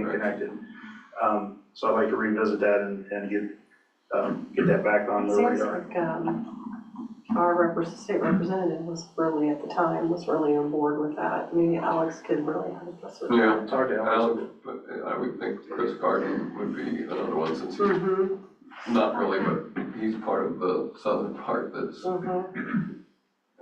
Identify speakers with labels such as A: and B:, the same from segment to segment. A: connected. Um, so I'd like to revisit that and, and get, um, get that back on the
B: Seems
A: radar.
B: like, um, our repres state representative was really, at the time, was really on board with that. Maybe Alex could really help us with that.
C: Yeah,
A: Talk to Alex.
C: Al, but uh, I would think Chris Garden would be another one since he's
B: Mm-hmm,
C: not really, but he's part of the southern part that's,
B: mm-hmm,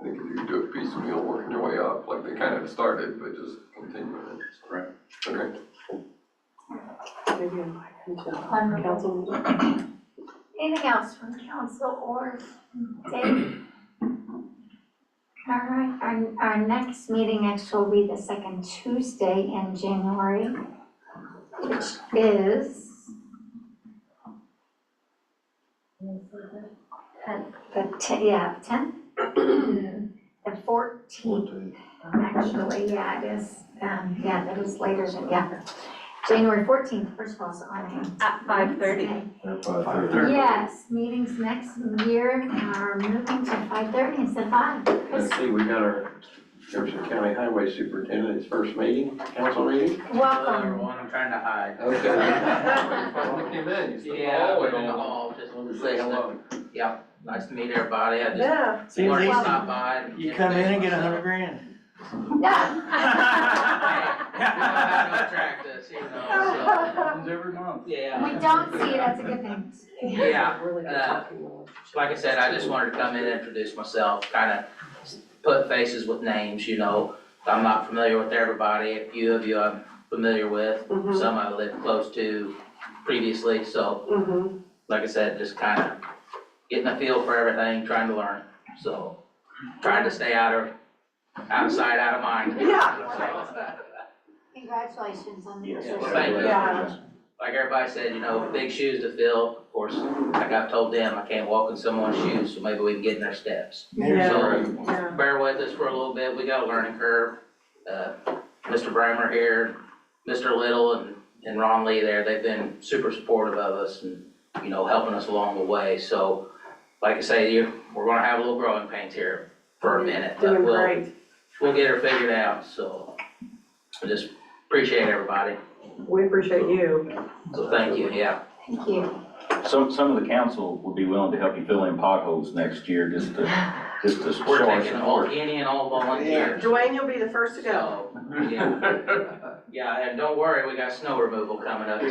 C: I think if you do it piecemeal, working your way up, like they kind of started, but just continuing it. so.
A: Right.
C: Okay,
B: maybe invite him to
D: Wonderful.
B: council.
D: Anything else from council or Dave? All right, our, our next meeting actually will be the second Tuesday in January, which is the ten, yeah, ten? The fourteenth, actually, yeah, it is, um, yeah, that is later than, yeah. January fourteenth, first of all, is on a.
E: At five thirty.
F: At five thirty.
D: Yes, meetings next year are moving to five thirty instead of five. Chris,
G: Let's see, we got our Jefferson County Highway Superintendent's first meeting, council meeting.
D: welcome.
H: Everyone, I'm trying to hide.
C: Okay. You finally came in, you "Oh, stepped
H: Yeah,
C: all the way
H: we're in the
C: over.
H: hall, just
C: Wanted to say hello.
H: Yeah, nice to meet everybody, I just
B: Yeah,
H: wanted to
D: easy.
H: stop by. and
I: You
H: introduce
I: come in and get a
H: myself.
I: hundred grand.
D: No.
H: Hey, you don't have to attract us, you know,
A: Happens every month.
H: so, yeah.
D: We don't see it, that's a good thing.
H: Yeah,
B: Really good
H: uh,
B: talking with.
H: Like I said, I just wanted to come in and introduce myself, kinda put faces with names, you know. I'm not familiar with everybody, a few of you I'm familiar with,
B: Mhm,
H: some I lived close to previously, so
B: mhm.
H: like I said, just kinda getting a feel for everything, trying to learn, so, trying to stay out of, outside, out of mind.
B: Yeah.
H: So,
D: Congratulations on the.
A: Yes.
D: position.
H: Thank you.
B: Yeah.
H: Like everybody said, you know, big shoes to fill, of course, like I've told them, I can't walk in someone's shoes, so maybe we can get in their steps.
B: Yeah.
H: So,
B: Yeah.
H: bear with us for a little bit, we got a learning curve, uh, Mr. Bramer here, Mr. Little and, and Ron Lee there, they've been super supportive of us and, you know, helping us along the way, so, like I say, you, we're gonna have a little growing pains here for a minute, but
B: Doing
H: we'll,
B: great.
H: we'll get her figured out, so. I just appreciate everybody,
B: We appreciate you.
H: so thank you, yeah.
D: Thank you.
J: Some, some of the council would be willing to help you fill in potholes next year, just to, just to
H: We're
J: show our
H: taking all,
J: support.
H: any and all volunteers.
B: Dwayne, you'll be the first to go.
H: So, yeah, yeah, and don't worry, we got snow removal coming up too.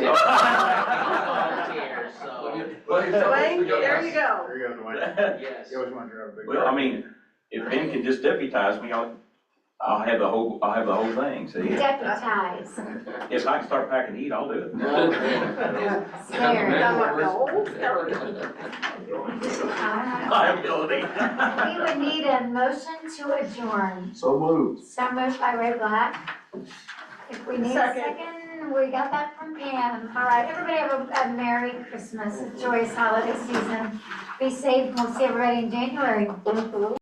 H: Volunteers, so,
C: Buddy, tell us
B: Dwayne,
C: to go.
B: there you go.
A: There you go, Dwayne.
H: yes.
A: You always want to drive a big.
J: Well, I mean, if Ben could just deputize me, I'll, I'll have the whole, I'll have the whole thing, see?
D: Deputize,
J: If I can start packing heat, I'll do it.
D: there.
C: Yeah.
B: Now, like the old story.
D: All right.
J: Liability.
D: We would need a motion to adjourn.
F: So moved.
D: So moved by Ray Black. If we need a
B: Second.
D: second, we got that from Pam. All right, everybody have a- a Merry Christmas, a joyous holiday season. Be safe, and we'll see everybody in January.